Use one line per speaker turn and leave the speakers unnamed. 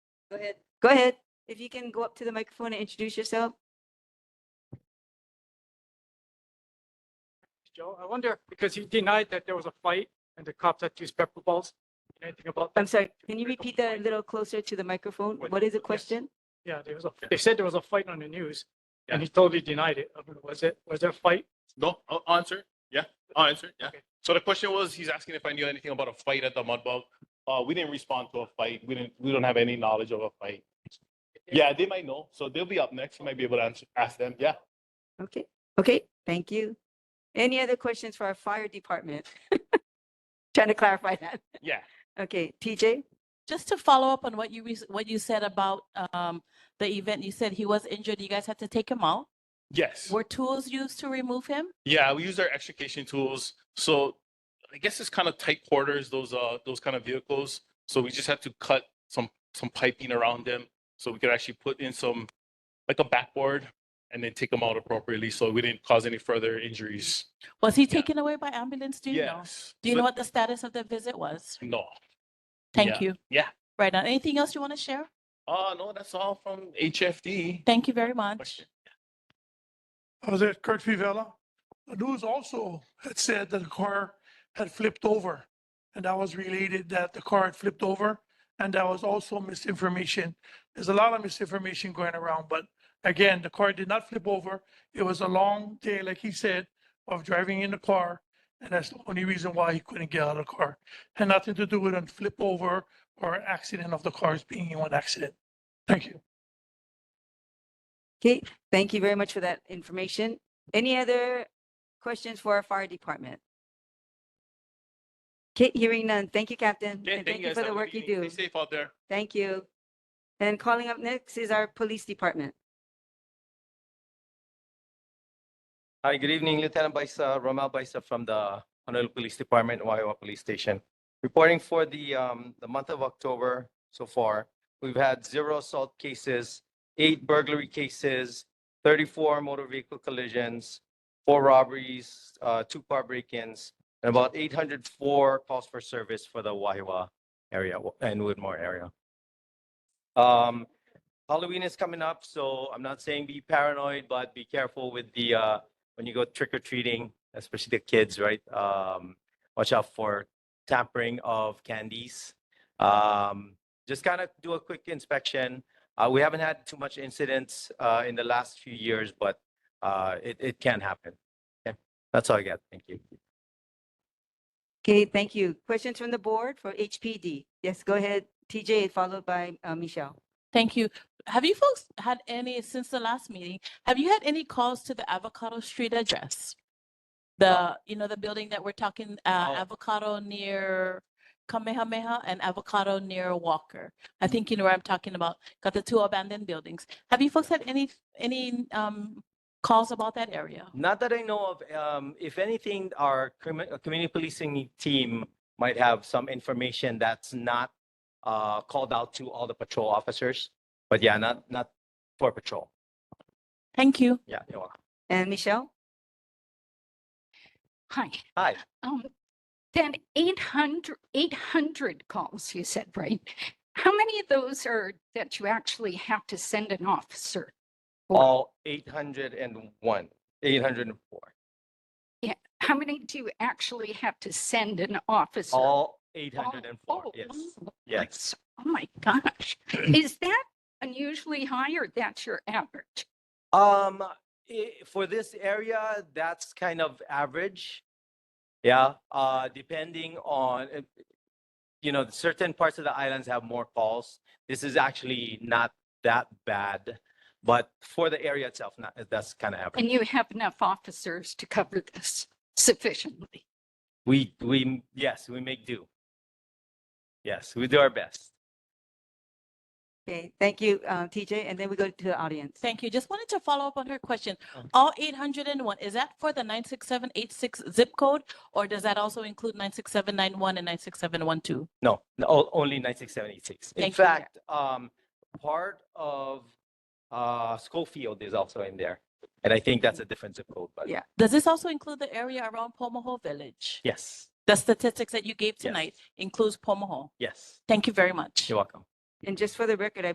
ahead. Go ahead. If you can go up to the microphone and introduce yourself.
Joe, I wonder, because he denied that there was a fight and the cops had used pepper balls. Anything about that?
I'm sorry, can you repeat that a little closer to the microphone? What is the
Yes.
question?
Yeah, there was a, they said there was a fight on the news and he totally denied it. I mean, was it, was there a fight?
No, I'll answer. Yeah, I'll answer. Yeah.
Okay.
So the question was, he's asking if I knew anything about a fight at the Mud Bug. Uh, we didn't respond to a fight. We didn't, we don't have any knowledge of a fight. Yeah, they might know. So they'll be up next. You might be able to answer, ask them. Yeah.
Okay, okay, thank you. Any other questions for our fire department? Trying to clarify that.
Yeah.
Okay, TJ?
Just to follow up on what you, rec- what you said about um, the event, you said he was injured, you guys had to take him out.
Yes.
Were tools used to remove him?
Yeah, we use our extrication tools. So I guess it's kind of tight quarters, those uh those kind of vehicles. So we just had to cut some some piping around them so we could actually put in some like a backboard and then take them out appropriately so we didn't cause any further injuries.
Was he taken away by ambulance? Do you know?
Yes.
Do you know
But-
what the status of the visit was?
No.
Thank you.
Yeah.
Right on. Anything else you want to share?
Uh no, that's all from HFD.
Thank you very much.
Question.
Uh, that Kurt Fivella. The news also had said that the car had flipped over. And that was related that the car had flipped over. And that was also misinformation. There's a lot of misinformation going around, but again, the car did not flip over. It was a long day, like he said, of driving in the car. And that's the only reason why he couldn't get out of the car. Had nothing to do with a flip over or accident of the cars being in one accident. Thank you.
Okay, thank you very much for that information. Any other questions for our fire department? Okay, hearing none. Thank you, Captain.
Yeah,
And thank you
guys.
for
Have a
the
good
work you
evening.
do.
Stay safe out there.
Thank you. And calling up next is our police department.
Hi, good evening, Lieutenant Baisa, Romel Baisa from the Honolulu Police Department, Waiwa Police Station. Reporting for the, um, the month of October so far, we've had zero assault cases, eight burglary cases, thirty-four motor vehicle collisions, four robberies, uh, two car break-ins, and about eight hundred four calls for service for the Waiwa area and Woodmore area. Um, Halloween is coming up, so I'm not saying be paranoid, but be careful with the, uh, when you go trick or treating, especially the kids, right? Um, watch out for tampering of candies. Um, just kind of do a quick inspection. Uh, we haven't had too much incidents uh, in the last few years, but uh, it, it can happen. Okay, that's all I got. Thank you.
Okay, thank you. Questions from the board for HPD? Yes, go ahead, TJ, followed by uh, Michelle.
Thank you. Have you folks had any, since the last meeting, have you had any calls to the Avocado Street address? The, you know, the building that we're talking, uh,
Oh.
Avocado near Kamehameha and Avocado near Walker. I think you know where I'm talking about, got the two abandoned buildings. Have you folks had any, any, um, calls about that area?
Not that I know of. Um, if anything, our commu- uh, community policing team might have some information that's not uh, called out to all the patrol officers. But yeah, not not for patrol.
Thank you.
Yeah, you're welcome.
And Michelle?
Hi,
Hi.
um, then 800, 800 calls, you said, right? How many of those are that you actually have to send an officer? for?
All 801, 804.
How many do you actually have to send an officer?
All
Oh,
804.
oh,
Yes.
oh,
Yes.
that's- Oh my gosh. Is that unusually high or that's your average?
Um, i- for this area, that's kind of average. Yeah, uh, depending on, uh, you know, certain parts of the islands have more calls. This is actually not that bad, but for the area itself, not, that's kind of average.
And you have enough officers to cover this sufficiently?
We, we, m- yes, we make do. Yes, we do our best.
Okay, thank you, uh, TJ, and then we go to the audience.
Thank you. Just wanted to follow up on her question.
Oh.
All eight hundred and one, is that for the nine six seven eight six zip code? Or does that also include nine six seven nine one and nine six seven one two?
No, no, o- only 9676. In
Thank you.
fact, um, part of, uh, Schofield is also in there. And I think that's a different zip code, but
Yeah.
Does this also include the area around Pomahoe Village?
yes.
The statistics that you gave
Yes.
tonight includes Pomahoe.
Yes,
Thank you very much.
you're welcome.
And just for the record, I